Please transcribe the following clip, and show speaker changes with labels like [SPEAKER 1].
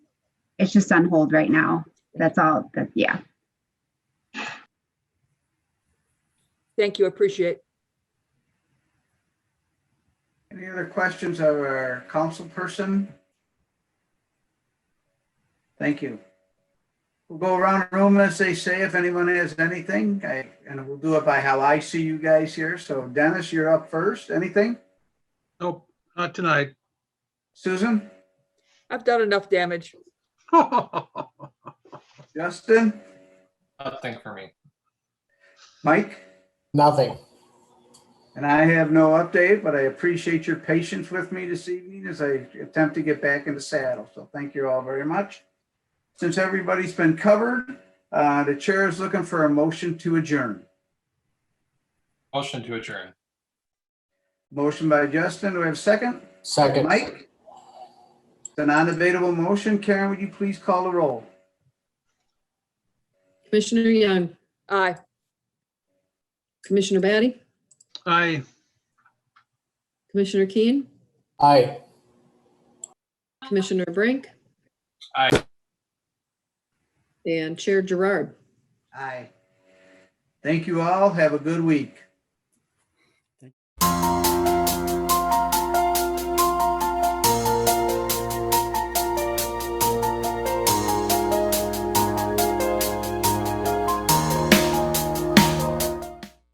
[SPEAKER 1] it's just on hold right now. That's all, that, yeah.
[SPEAKER 2] Thank you, appreciate.
[SPEAKER 3] Any other questions of our council person? Thank you. We'll go around the room as they say if anyone has anything, I- and we'll do it by how I see you guys here. So Dennis, you're up first. Anything?
[SPEAKER 4] Nope, not tonight.
[SPEAKER 3] Susan?
[SPEAKER 2] I've done enough damage.
[SPEAKER 3] Justin?
[SPEAKER 5] Nothing for me.
[SPEAKER 3] Mike?
[SPEAKER 6] Nothing.
[SPEAKER 3] And I have no update, but I appreciate your patience with me this evening as I attempt to get back in the saddle. So thank you all very much. Since everybody's been covered, uh, the chair is looking for a motion to adjourn.
[SPEAKER 5] Motion to adjourn.
[SPEAKER 3] Motion by Justin. Do we have a second?
[SPEAKER 6] Second.
[SPEAKER 3] Mike? It's a non-debatable motion. Karen, would you please call the roll?
[SPEAKER 7] Commissioner Young,
[SPEAKER 2] Aye.
[SPEAKER 7] Commissioner Batty,
[SPEAKER 4] I,
[SPEAKER 7] Commissioner Keen,
[SPEAKER 6] Aye.
[SPEAKER 7] Commissioner Brink.
[SPEAKER 5] Aye.
[SPEAKER 7] And Chair Gerard.
[SPEAKER 3] Aye. Thank you all. Have a good week.